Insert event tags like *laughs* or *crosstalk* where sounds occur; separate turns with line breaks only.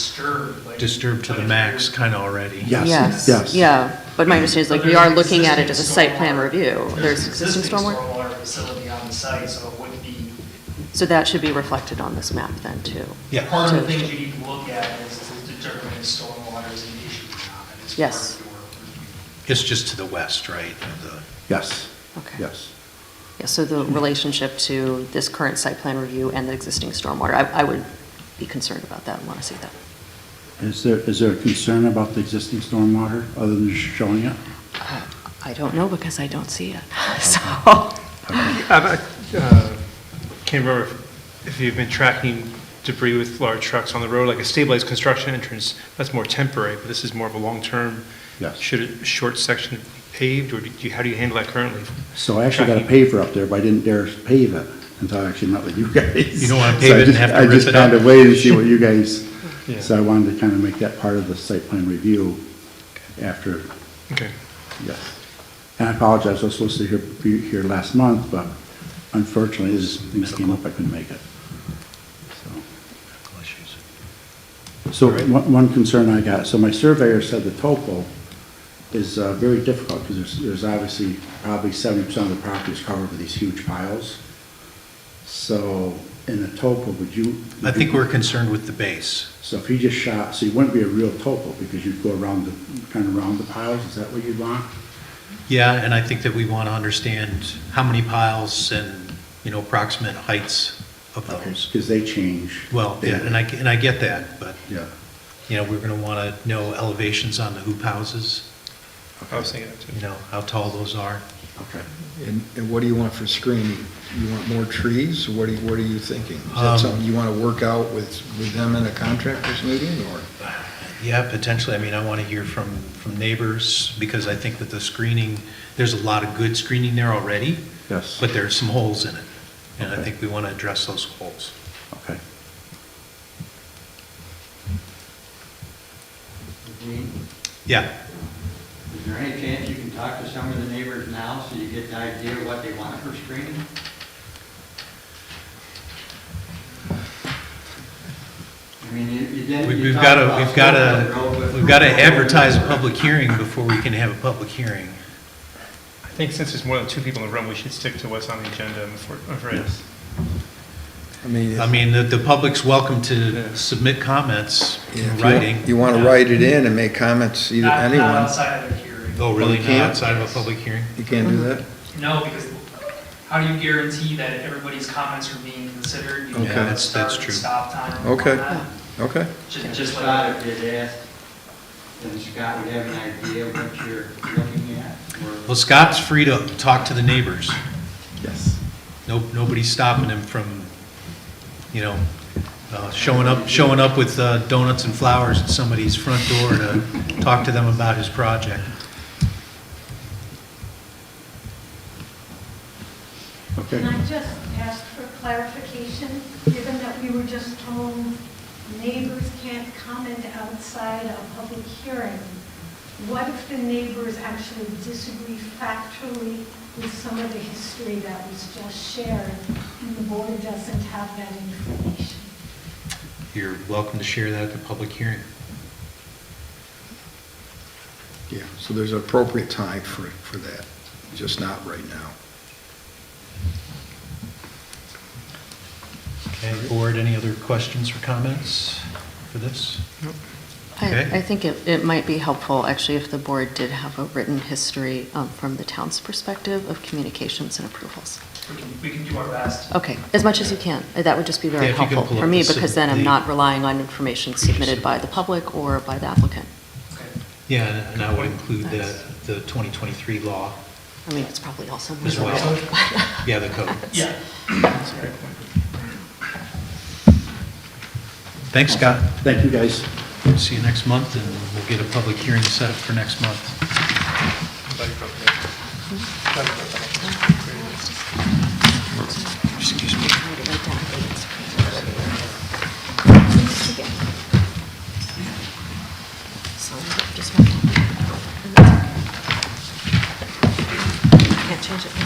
disturbed, like.
disturbed to the max kind of already.
Yes, yes.
Yeah, but my understanding is like
But
we are
there's
looking at it as a
existing
site plan
stormwater-
review. There's existing stormwater,
Stormwater facility on the site, so it wouldn't be,
so that should be reflected on this map then too.
Yeah,
part of
So-
the things you need to look at is to determine if stormwater is an issue or not. and it's part
Yes.
of your review.
it's just to the west, right? of the-
Yes,
Okay.
yes.
Yeah, so the relationship to this current site plan review and the existing stormwater, I, I would be concerned about that and want to see that.
Is there, is there a concern about the existing stormwater other than just showing it?
I don't know because I don't see it, *laughs* so.
Um, I uh, can't remember if- if you've been tracking debris with large trucks on the road, like a stabilized construction entrance, that's more temporary, but this is more of a long-term.
Yes.
Should a short section be paved, or do you, how do you handle that currently?
So I actually got a paver up there, but I didn't dare pave it until I actually met with you guys.
You don't wanna
So
pave
I
it and
just-
have to rip
I just
it up.
kind of waited to see what you
*laughs*
guys,
Yeah.
so I wanted to kind of make that part of the site plan review after,
Okay,
yes. And I apologize, I was supposed to hear, be here last month, but unfortunately, as things came up, I couldn't make it. So. So one one concern I got, so my surveyor said the topo is uh, very difficult because there's, there's obviously probably seventy percent of the property is covered with these huge piles. So in a topo, would you?
I think we're concerned with the base.
So if you just shot, so you wouldn't be a real topo because you'd go around the, kind of around the piles, is that what you'd want?
Yeah, and I think that we want to understand how many piles and, you know, approximate heights of those.
Because they change.
Well, yeah, and I, and I get that, but,
Yeah,
you know, we're going to want to know elevations on the hoop houses,
I was thinking that too.
you know, how tall those are.
okay.
And, and what do you want for screening? You want more trees? What are, you- what are you thinking? Is
Um,
that something you want to work out with, with them in a contractors meeting, or?
Yeah, potentially. I mean, I want to hear from, from neighbors because I think with the screening, there's a lot of good screening there already,
Yes,
but there's some holes in it. And I
Okay.
think we want to address those holes.
okay.
Dean,
Yeah,
is there any chance you can talk to some of the neighbors now so you get an idea of what they want for screening? I mean, you, you
We-
didn't. you
we've
talked
got to,
about
we've got
Silver Road,
to,
but-
we've got to
*laughs*
advertise a public hearing before we can have a public hearing.
I think since there's more than two people in the room, we should stick to what's on the agenda, I'm afraid- I'm afraid.
Yes.
I mean,
I
if-
mean, the, the public's welcome
Yeah.
to submit comments
if
in
you-
writing.
You want to write it in and make comments, either,
Not-
anyone.
Not outside of the hearing.
Oh, really?
You
Not
can't?
outside of a public hearing?
You can't do that?
No, because how do you guarantee that everybody's comments are being considered? You
Okay.
know,
Yeah,
that's-
start
that's
and
true.
Stop time. and
Okay.
whatnot.
Okay.
Ju-
And
Just like.
Scott, if you'd asked, then Scott would have an idea of what you're looking at. or-
Well, Scott's free to talk to the neighbors.
Yes.
No, nobody's stopping him from, you know, uh, showing up, showing up with uh, donuts and flowers at somebody's front door to talk to them about his project.
Okay.
Can I just ask for clarification, given that we were just told neighbors can't comment outside a public hearing? What if the neighbors actually disagree factually with some of the history that was just shared, and the board doesn't have that information?
You're welcome to share that at the public hearing.
Yeah, so there's an appropriate time for, for that, just not right now.
Okay, board, any other questions or comments for this? Okay.
I, I think it, it might be helpful, actually, if the board did have a written history um, from the town's perspective of communications and approvals.
We can, we can do our best.
Okay, as much as you can. Uh, That would just be
Yeah,
very
if you can
helpful
pull
for
up
me,
the sub-
because then I'm
the-
not relying on information submitted by the public or by the applicant.
Okay.
Yeah, and- and I would include the,
Thanks.
the 2023 law
I mean, it's probably all somewhere.
as well. *laughs* Yeah, the code.
Yeah.
Thanks, Scott.
Thank you, guys.
See you next month, and we'll get a public hearing set up for next month. Excuse me.
So, just one. Can't change it.